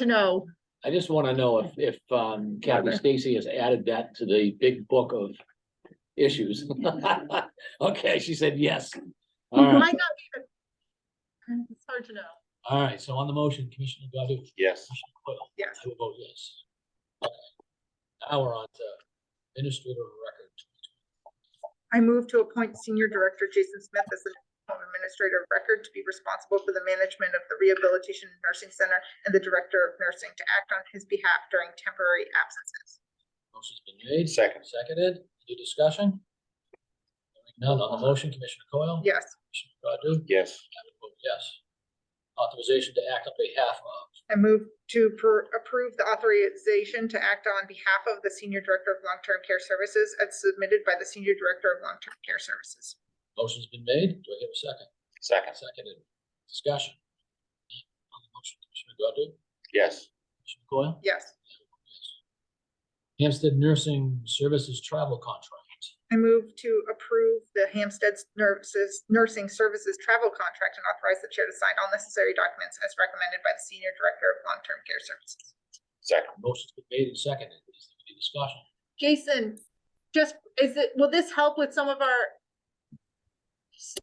to know. I just wanna know if, if, um, Kathy Whatever. Stacy has added that to the big book of issues. Okay, she said yes. All Might not right, be the- It's hard to know. all right, so on the motion, Commissioner Godu, Yes. Yes. I will vote yes. Now we're on to administrator of record. I move to appoint Senior Director Jason Smith as the Home Administrator of Record to be responsible for the management of the Rehabilitation Nursing Center and the Director of Nursing to act on his behalf during temporary absences. Motion's been made, Second. seconded, any discussion? Hearing None on the motion, Commissioner Coyle? Yes, Commissioner Godu? Yes. I will vote yes. Authorization to act on behalf of, I move to per- approve the authorization to act on behalf of the Senior Director of Long-Term Care Services as submitted by the Senior Director of Long-Term Care Services. motion's been made, do I have a second? Second. Seconded, discussion. On the motion, Commissioner Godu? Yes. Commissioner Coyle? Yes, Hampstead Nursing Services Travel Contract. I move to approve the Hampstead Nurses Nursing Services Travel Contract and authorize the Chair to sign all necessary documents as recommended by the Senior Director of Long-Term Care Services. Second. Motion's been made and seconded, is there any discussion? Jason, just, is it, will this help with some of our?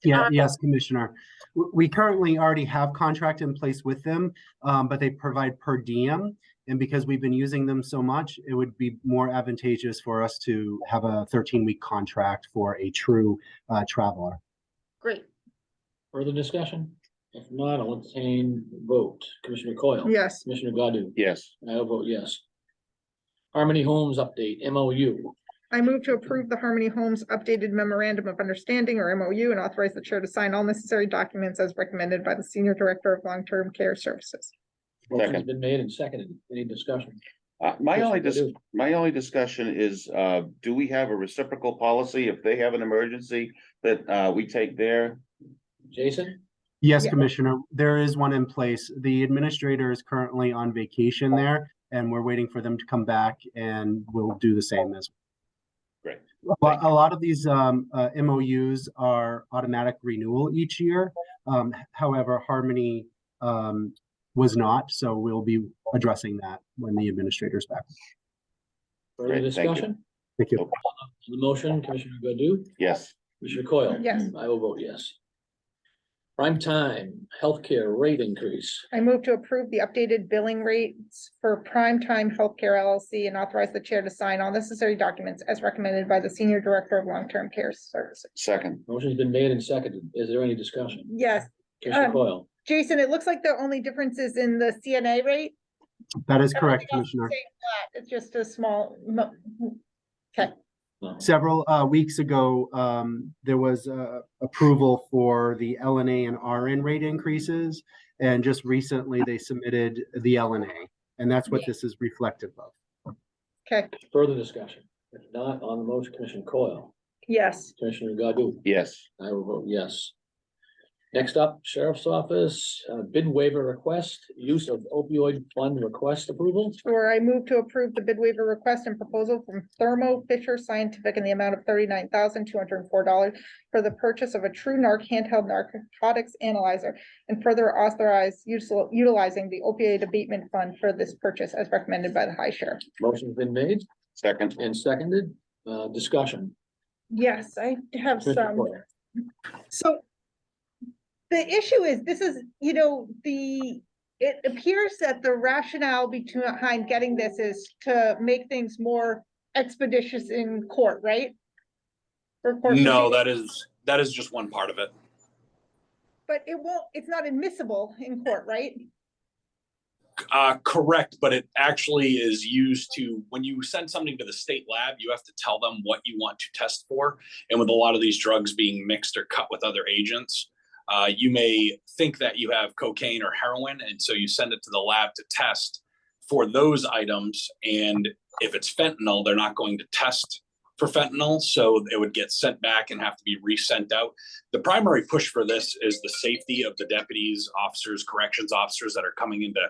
Yeah, Uh, yes, Commissioner. W- We currently already have contract in place with them, um, but they provide per diem. And because we've been using them so much, it would be more advantageous for us to have a thirteen-week contract for a true uh, traveler. Great. Further discussion? If not, I'll entertain vote, Commissioner Coyle? Yes, Commissioner Godu? Yes. I will vote yes. Harmony Homes Update, MOU. I move to approve the Harmony Homes updated memorandum of understanding or MOU and authorize the chair to sign all necessary documents as recommended by the senior director of long-term care services. Motion's Second. been made and seconded, any discussion? Uh, my only, dis- Commissioner Godu? my only discussion is, uh, do we have a reciprocal policy if they have an emergency that, uh, we take their? Jason? Yes, Yeah. Commissioner, there is one in place. The administrator is currently on vacation there, and we're waiting for them to come back, and we'll do the same as. Great. But a lot of these um, uh, MOUs are automatic renewal each year. Um, However, Harmony um, was not, so we'll be addressing that when the administrator's back. Further Great, thank you. discussion? Thank you. On the motion, Commissioner Godu? Yes. Commissioner Coyle? Yes. I will vote yes. Prime time healthcare rate increase. I move to approve the updated billing rates for Prime Time healthcare LLC and authorize the chair to sign all necessary documents as recommended by the senior director of long-term care services. Second. Motion's been made and seconded. Is there any discussion? Yes, Commissioner Um, Coyle? Jason, it looks like the only difference is in the CNA rate. That is correct, Everything else is Commissioner. staying flat. It's just a small, mo- No. Several uh, weeks ago, um, there was uh, approval for the LNA and RN rate increases. And just recently, they submitted the LNA, and that's what this is reflective of. okay, Further discussion? If not, on the motion, Commissioner Coyle? yes. Commissioner Godu? Yes. I will vote yes. Next up, Sheriff's Office, uh, bid waiver request, use of opioid fund request approval. Sure, I move to approve the bid waiver request and proposal from Thermo Fisher Scientific in the amount of thirty-nine thousand two hundred and four dollars for the purchase of a true narc handheld narcotics analyzer and further authorize util- utilizing the opioid abatement fund for this purchase as recommended by the high sheriff. Motion's been made Second. and seconded. Uh, discussion. Yes, I have Commissioner some. Coyle? So the issue is, this is, you know, the, it appears that the rationale between- behind getting this is to make things more expeditious in court, right? For court No, proceedings, that is, that is just one part of it. But it won't, it's not admissible in court, right? Uh, correct, but it actually is used to, when you send something to the state lab, you have to tell them what you want to test for. And with a lot of these drugs being mixed or cut with other agents, uh, you may think that you have cocaine or heroin, and so you send it to the lab to test for those items. And if it's fentanyl, they're not going to test for fentanyl, so it would get sent back and have to be resent out. The primary push for this is the safety of the deputies, officers, corrections officers that are coming into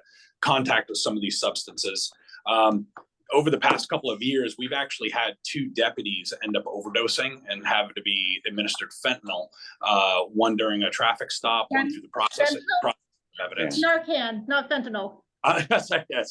contact with some of these substances. Um, over the past couple of years, we've actually had two deputies end up overdosing and have to be administered fentanyl. Uh, one during a traffic stop, one through the process, Fentanyl? process of evidence. Narcan, not fentanyl. Uh, yes, I- yes.